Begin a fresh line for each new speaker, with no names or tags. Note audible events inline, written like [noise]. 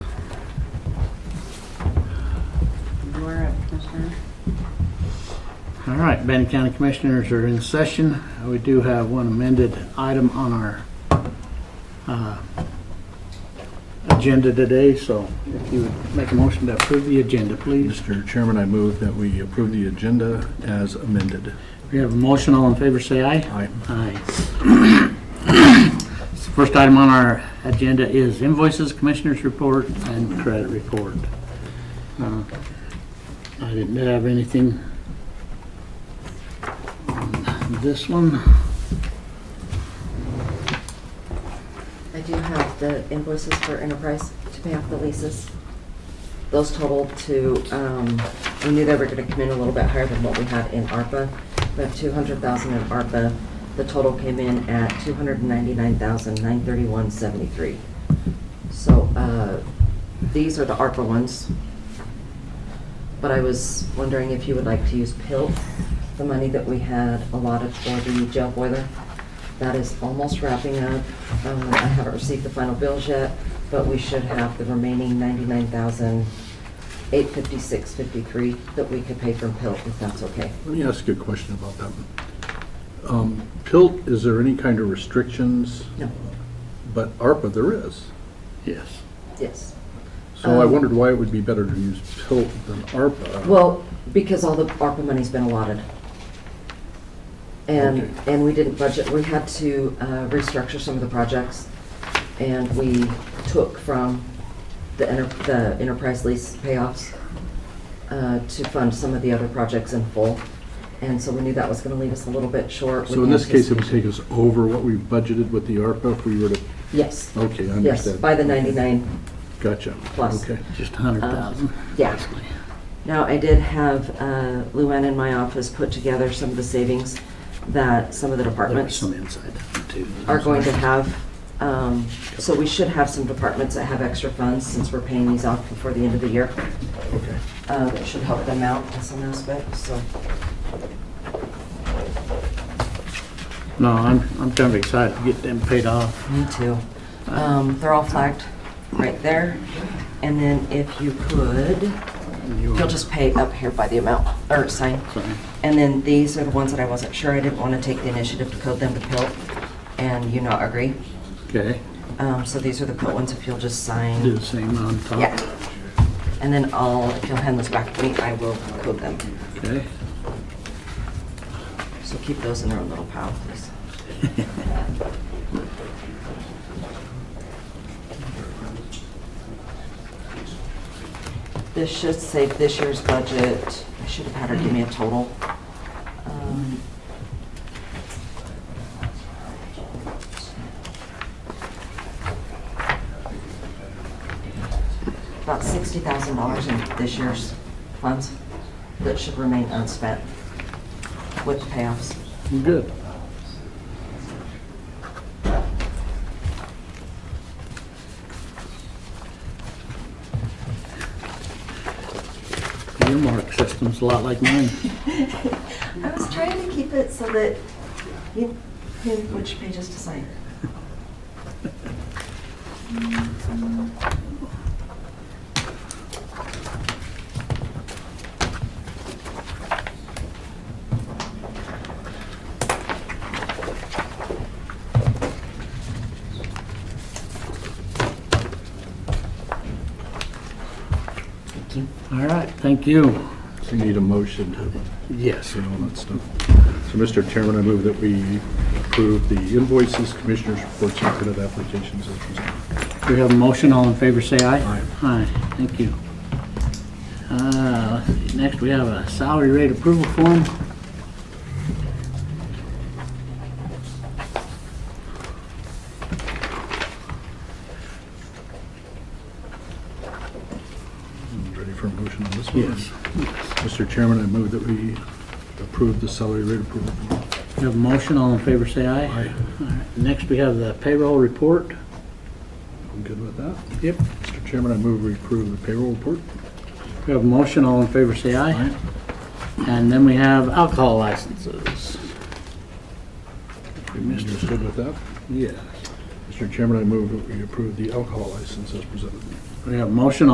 All right, Bannock County Commissioners are in session. We do have one amended item on our uh, agenda today, so if you would make a motion to approve the agenda, please.
Mr. Chairman, I move that we approve the agenda as amended.
We have a motion, all in favor, say aye.
Aye.
Aye. First item on our agenda is invoices, Commissioners' report, and credit report. Uh, I didn't have anything on this one.
I do have the invoices for Enterprise to pay off the leases. Those totaled to, um, we knew they were gonna come in a little bit higher than what we had in ARPA. We have two hundred thousand in ARPA. The total came in at two hundred ninety-nine thousand, nine thirty-one, seventy-three. So, uh, these are the ARPA ones. But I was wondering if you would like to use PILT, the money that we had allotted for the jail boiler. That is almost wrapping up. Um, I haven't received the final bills yet, but we should have the remaining ninety-nine thousand, eight fifty-six, fifty-three that we could pay from PILT, if that's okay.
Let me ask you a question about that. Um, PILT, is there any kind of restrictions?
No,
But ARPA, there is.
Yes.
yes.
So I
Um,
wondered why it would be better to use PILT than ARPA.
Well, because all the ARPA money's been allotted. And,
Okay.
and we didn't budget, we had to uh, restructure some of the projects, and we took from the enter- the enterprise lease payoffs uh, to fund some of the other projects in full, and so we knew that was gonna leave us a little bit short.
So
with
in this case, it would
anticipation.
take us over what we budgeted with the ARPA if we were to,
Yes,
okay, I
yes,
understand.
by the 99
Gotcha.
plus.
Okay.
Just a hundred thousand.
Um, yeah.
basically.
Now, I did have uh, Luann in my office put together some of the savings that some of the
There was
departments
some inside that one, too.
are going to have, um, so we should have some departments that have extra funds since we're paying these off before the end of the year.
Okay.
Uh, That should help them out in some aspects, so.
No, I'm, I'm kind of excited to get them paid off.
Me too. Um, They're all flagged right there. And then if you could,
You
you'll just pay up here by the amount, or sign.
Sign.
And then these are the ones that I wasn't sure, I didn't want to take the initiative to code them to PILT, and you not agree.
Okay,
Um, So these are the PILT ones, if you'll just sign.
do the same on top.
Yeah. And then I'll, if you'll hand those back to me, I will code them.
Okay. [laughs]
So keep those in their own little pile, please. This should save this year's budget. I should have had her give me a total. Um, About sixty thousand dollars in this year's funds that should remain unspent with the payoffs.
Good. Your mark system's a lot like
[laughs]
mine.
I was trying to keep it so that you knew which pages to sign. Thank you.
All right, thank you.
So you need a motion to
Yes.
and all that stuff. So, Mr. Chairman, I move that we approve the invoices, commissioners' reports, and credit applications as presented.
We have a motion, all in favor, say aye.
Aye.
Aye, thank you. Uh, let's see, Next, we have a salary rate approval form.
Ready for a motion on this one? Mr. Chairman, I move that we approve the salary rate approval. form.
We have a motion, all in favor, say aye.
Aye.
All right, Next, we have the payroll report.
I'm good with that.
Yep.
Mr. Chairman, I move we approve the payroll report.
We have a motion, all in favor, say aye. And then we have alcohol licenses.
Mr. Good with that.
Yes.
Mr. Chairman, I move that we approve the alcohol license as presented.
We have a motion,